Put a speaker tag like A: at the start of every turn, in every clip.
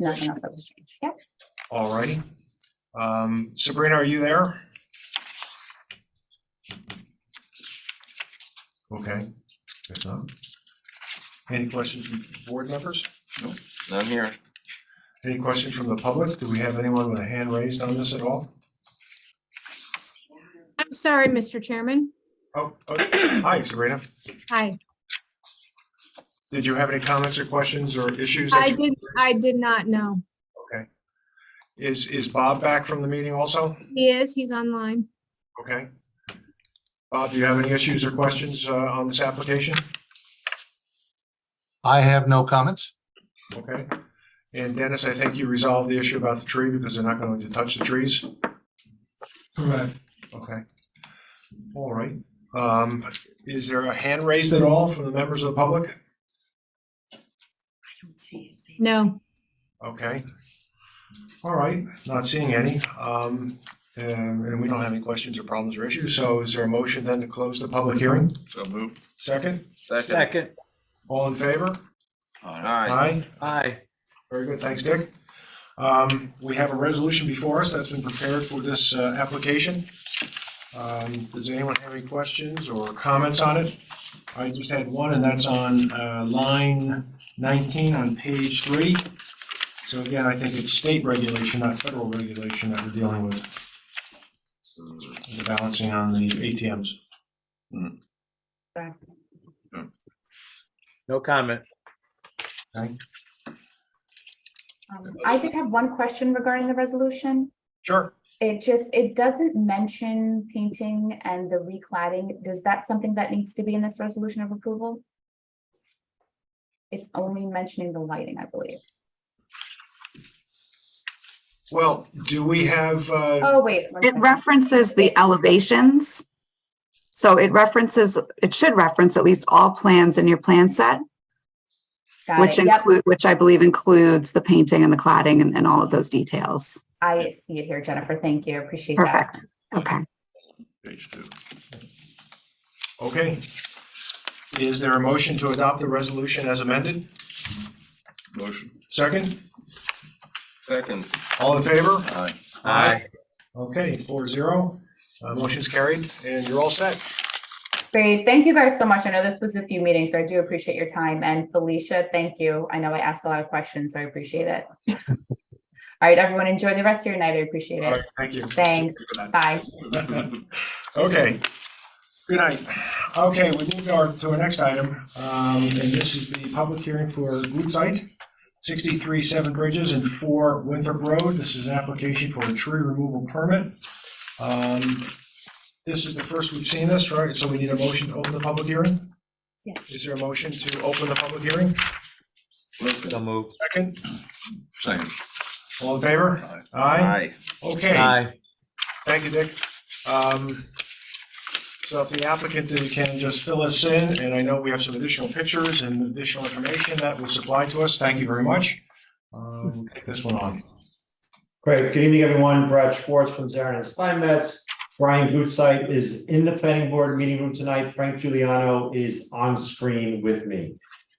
A: nothing else that was changed. Yep.
B: All righty. Um, Sabrina, are you there? Okay. If not, Any questions from board members?
C: None here.
B: Any questions from the public? Do we have anyone with a hand raised on this at all?
D: I'm sorry, Mr. Chairman.
B: Oh, oh, hi Sabrina.
D: Hi,
B: Did you have any comments or questions or issues? that
D: I
B: you-
D: did, I did not know.
B: Is, is Bob back from the meeting also?
D: He is, he's online.
B: Okay. Bob, do you have any issues or questions uh, on this application?
E: I have no comments.
B: Okay. And Dennis, I think you resolved the issue about the tree because they're not going to touch the trees.
F: Correct.
B: Okay. All right. Um, Is there a hand raised at all from the members of the public?
D: No,
B: Okay. All right, not seeing any. Um, And and we don't have any questions or problems or issues. So is there a motion then to close the public hearing?
C: So moved.
B: Second,
C: Second.
G: Second,
B: all in favor?
C: Aye.
B: Aye.
G: aye.
B: Very good, thanks, Dick. Um, We have a resolution before us that's been prepared for this uh, application. Um, Does anyone have any questions or comments on it? I just had one, and that's on uh, line 19 on page three. So again, I think it's state regulation, not federal regulation that we're dealing with, the balancing on the ATMs.
G: No comment.
A: Um, I did have one question regarding the resolution.
B: Sure.
A: It just, it doesn't mention painting and the recladding. Is that something that needs to be in this resolution of approval? It's only mentioning the lighting, I believe.
B: Well, do we have, uh,
A: Oh, wait. one
H: It
A: second.
H: references the elevations. So it references, it should reference at least all plans in your plan set,
A: Got
H: which
A: it. Yep,
H: include, which I believe includes the painting and the cladding and, and all of those details.
A: I see it here, Jennifer. Thank you. Appreciate that.
H: Perfect. Okay. Um,
C: Page two.
B: okay. Is there a motion to adopt the resolution as amended?
C: Motion.
B: Second,
C: Second.
B: all in favor?
C: Aye.
G: Aye.
B: Okay, four zero. Uh, Motion's carried and you're all set.
A: Great. Thank you guys so much. I know this was a few meetings, so I do appreciate your time. And Felicia, thank you. I know I asked a lot of questions, so I appreciate it. All right, everyone, enjoy the rest of your night. I appreciate
B: All right,
A: it.
B: thank you.
A: Thanks. Bye.
B: Okay. Good night. Okay, we move our- to our next item, um, and this is the public hearing for group site, sixty-three Seven Bridges and four Winthrop Road. This is an application for a tree removal permit. Um, This is the first we've seen this, right? So we need a motion to open the public hearing?
A: Yes.
B: Is there a motion to open the public hearing?
G: So
C: Motion.
G: moved.
B: Second,
C: Second.
B: all in favor? Aye.
C: Aye.
B: Okay.
G: Aye.
B: Thank you, Dick. Um, So if the applicant uh, can just fill us in, and I know we have some additional pictures and additional information that was supplied to us, thank you very much. Um, We'll Take this one on.
I: Great, good evening, everyone. Brad Schwartz from Zarin and Steinmetz. Brian Gutzeit is in the planning board meeting room tonight. Frank Giuliano is on screen with me.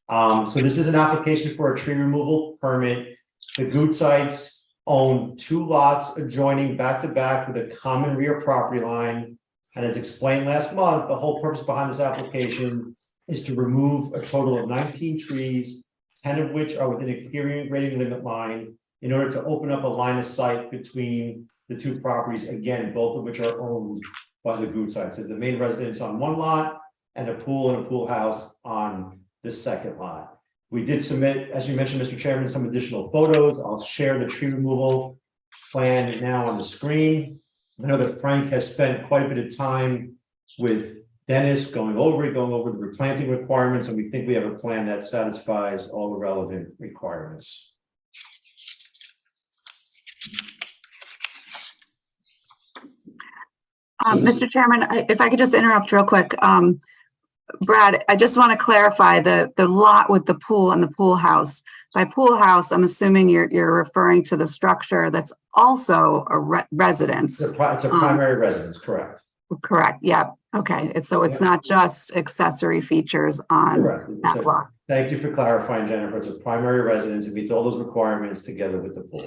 I: Um, so this is an application for a tree removal permit. The Gutzeits own two lots adjoining back to back with a common rear property line. And as explained last month, the whole purpose behind this application is to remove a total of nineteen trees, ten of which are within a clearing grading limit line in order to open up a line of sight between the two properties, again, both of which are owned by the Good side. So the main residence on one lot and a pool and a pool house on the second lot. We did submit, as you mentioned, Mr. Chairman, some additional photos. I'll share the tree removal plan now on the screen. I know that Frank has spent quite a bit of time with Dennis going over it, going over the replanting requirements, and we think we have a plan that satisfies all the relevant requirements.
H: Um, Mr. Chairman, I- if I could just interrupt real quick. Um, Brad, I just want to clarify the, the lot with the pool and the pool house. By pool house, I'm assuming you're, you're referring to the structure that's also a re- residence.
I: It's a, pri- it's a
H: Um,
I: primary residence, correct?
H: Correct, yeah, okay, it's, so it's not just accessory features on
I: Correct. It's
H: um, that
I: a-
H: block,
I: Thank you for clarifying, Jennifer. It's a primary residence. It meets all those requirements together with the pool.